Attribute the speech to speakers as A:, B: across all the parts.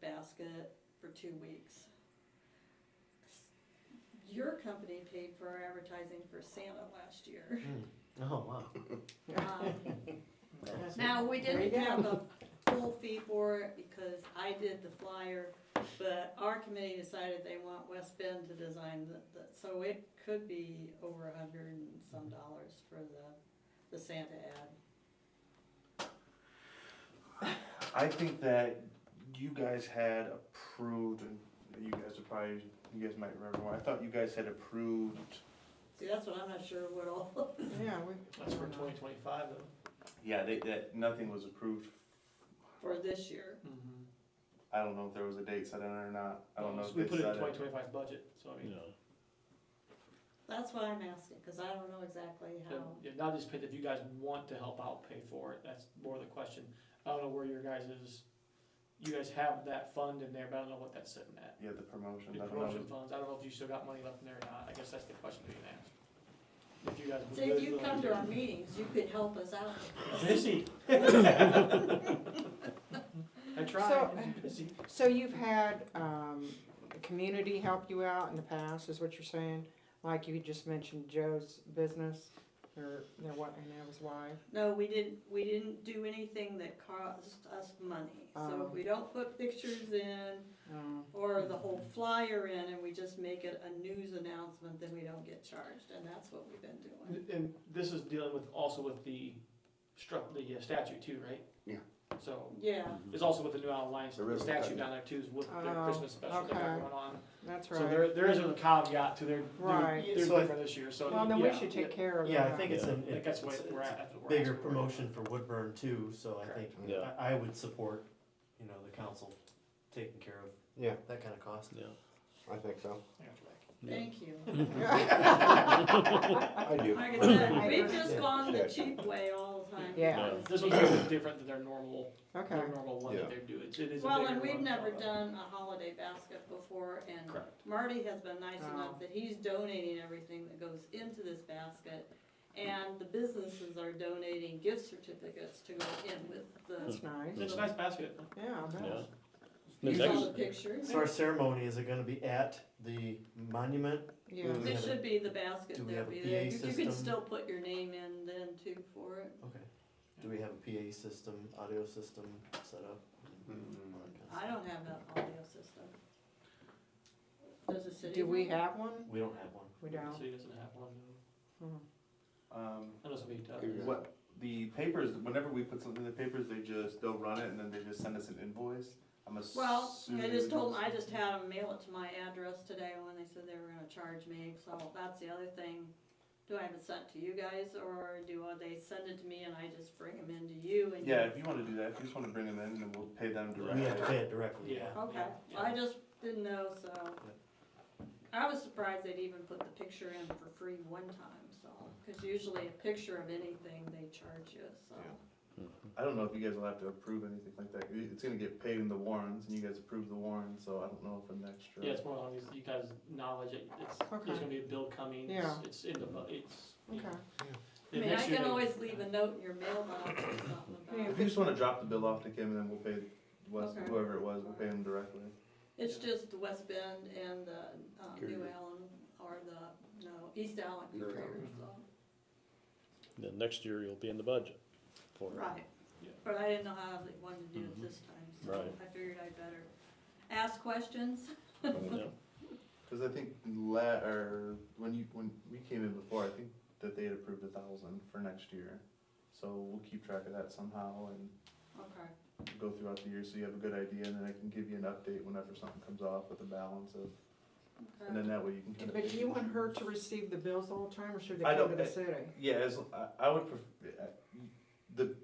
A: basket for two weeks. Your company paid for our advertising for Santa last year.
B: Oh, wow.
A: Um, Now, we
B: There you
A: didn't
B: go.
A: have a full fee for it because I did the flyer, but our committee decided they want West Bend to design the, the, so it could be over a hundred and some dollars for the, the Santa ad.
C: I think that you guys had approved, and you guys are probably, you guys might remember why. I thought you guys had approved.
A: See, that's what I'm not sure what all,
B: Yeah, we.
D: That's for twenty twenty-five though.
C: Yeah, they, that nothing was approved.
A: for this year.
C: I don't know if there was a date set in it or not. I don't know if
D: We
C: they
D: put it in
C: set
D: twenty
C: it.
D: twenty-five budget, so I mean,
A: That's why I'm asking, cause I don't know exactly
D: the-
A: how.
D: yeah, not just paid, if you guys want to help out, pay for it, that's more the question. I don't know where your guys is, you guys have that fund in there, but I don't know what that's sitting at.
C: Yeah, the promotion.
D: The
C: I don't
D: promotion
C: know.
D: funds, I don't know if you still got money left in there or not, I guess that's the question being asked. If you guys. would
A: See, if
D: really
A: you
D: like
A: come to our meetings, you could help us out.
D: Busy. I tried,
B: So-
D: busy.
B: So you've had, um, the community help you out in the past, is what you're saying? Like you just mentioned Joe's business, or, their what, and that was why?
A: No, we didn't, we didn't do anything that cost us money. So if
B: Oh.
A: we don't put pictures in,
B: Um,
A: or the whole flyer in and we just make it a news announcement, then we don't get charged, and that's what we've been doing.
D: And this is dealing with, also with the stru the uh, statute too, right?
E: Yeah.
D: So,
A: Yeah,
F: Mm-hmm.
D: it's also with the New Island Lions,
E: The ribbon
D: statute
E: cutting.
D: down there too, is with their
B: Oh,
D: Christmas special they got
B: okay.
D: going on.
B: That's
D: So
B: right.
D: there, there is a caveat to their,
B: Right.
D: their, their
F: So I-
D: different this year, so,
B: Well, then we
D: yeah,
B: should take care of that.
F: Yeah, I think it's a,
D: I think that's
F: it's-
D: what we're at, that's what
F: it's a
D: we're
F: Bigger
D: asking. for.
F: promotion for Woodburn too, so I think,
E: Yeah.
F: I, I would support, you know, the council taking care of
E: Yeah,
F: that kind of cost.
E: I think so.
D: I got your back.
A: thank you.
E: I do.
A: Like I said,
B: I
A: we've
B: agree.
A: just gone the cheap way all the time.
B: Yeah.
D: This one's a little different than their normal,
B: Okay,
D: their normal one
E: Yeah.
D: that they do, it's, it is a
A: Well,
D: bigger
A: and we've
D: one,
A: never
D: so-
A: done a holiday basket before, and
D: Correct.
A: Marty has been nice
B: Oh.
A: enough that he's donating everything that goes into this basket. And the businesses are donating gift certificates to go in with the,
B: that's nice.
D: It's a nice basket.
B: Yeah, I bet.
G: Yeah.
A: you
G: It's
A: saw the
G: actually-
A: pictures.
F: So our ceremony, is it gonna be at the monument?
B: Yeah.
F: Do we
A: It
F: have a-
A: should be the basket
F: do we
A: that'll be
F: have a
A: there.
F: PA
A: You you can
F: system?
A: still put your name in then too for it.
F: Okay. Do we have a PA system, audio system set up?
A: Mm-hmm.
F: All that kinda
A: I
F: stuff?
A: don't have an audio system. Does the city?
B: Do we
A: one?
B: have one?
F: We don't have one.
B: We don't.
D: So he doesn't have one, no.
C: Um,
D: That doesn't mean
E: Here we go.
C: what the papers? Whenever we put something in the papers, they just they'll run it and then they just send us an invoice. I'm assuming.
A: Well, I just told, 'em- I just had them mail it to my address today when they said they were gonna charge me, so that's the other thing. Do I have it sent to you guys or do uh, they send it to me and I just bring them into you and? you-
C: Yeah, if you want to do that, if you just want to bring them in, then we'll pay them
F: We
C: directly.
F: have to pay it directly,
D: Yeah.
A: Okay, well, I just didn't know, so. I was surprised they'd even put the picture in for free one time, so, cause usually a picture of anything they charge you, so.
E: Yeah.
C: I don't know if you guys will have to approve anything like that. It- It's gonna get paid in the warrants, and you guys approve the warrants, so I don't know if an extra.
D: Yeah, it's more on these, you guys knowledge, it, it's,
B: Okay.
D: there's gonna be a bill coming, it's,
B: Yeah.
D: it's in the, bu- it's.
B: Okay.
A: I
D: The
A: mean, I
D: next year
A: can
D: they-
A: always leave a note in your mailbox or something about it.
C: If you just wanna drop the bill off to Kim, and then we'll pay Wes,
A: Okay.
C: whoever it was, we'll pay him directly.
A: It's just the West Bend and the, uh, New
E: Period.
A: Allen, or the, no, East Allen
E: New
A: Courier,
E: Allen.
A: so,
G: Then next year you'll be in the budget for it.
A: right.
D: Yeah.
A: But I didn't know how they wanted to do it
G: Mhm.
A: this time, so
G: Right.
A: I figured I'd better ask questions.
G: Yep.
C: Cause I think la, or when you, when we came in before, I think that they had approved a thousand for next year. So we'll keep track of that somehow and
A: Okay,
C: go throughout the year, so you have a good idea, and then I can give you an update whenever something comes off with the balance of, and then
A: okay.
C: that way you can. kinda-
B: But do you want her to receive the bills all the time, or should they
C: I
B: come to
C: don't-
B: the city?
C: Yeah, as, I, I would, pref- uh, the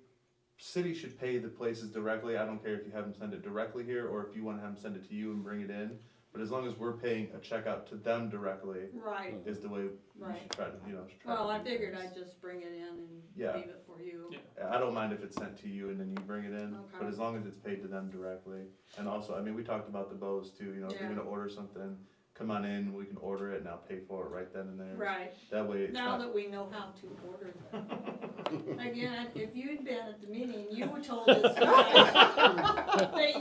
C: city should pay the places directly, I don't care if you have them send it directly here, or if you wanna have them send it to you and bring it in. But as long as we're paying a check out to them directly,
A: Right,
G: Hmm.
C: is the way we
A: Right.
C: should try to, you know, try to
A: well, I
C: do
A: figured
C: things.
A: I'd just bring it in
C: Yeah.
A: and leave it for you.
D: Yeah.
C: I don't mind if it's sent to you and then you bring it in,
A: Okay.
C: but as long as it's paid to them directly. And also, I mean, we talked about the bows too, you know, if you're
A: Yeah.
C: gonna order something, come on in, we can order it and I'll pay for it right then and there.
A: Right,
C: That way it's
A: now
C: not,
A: that we know how to order them. Again, if you'd been at the meeting, you were told us that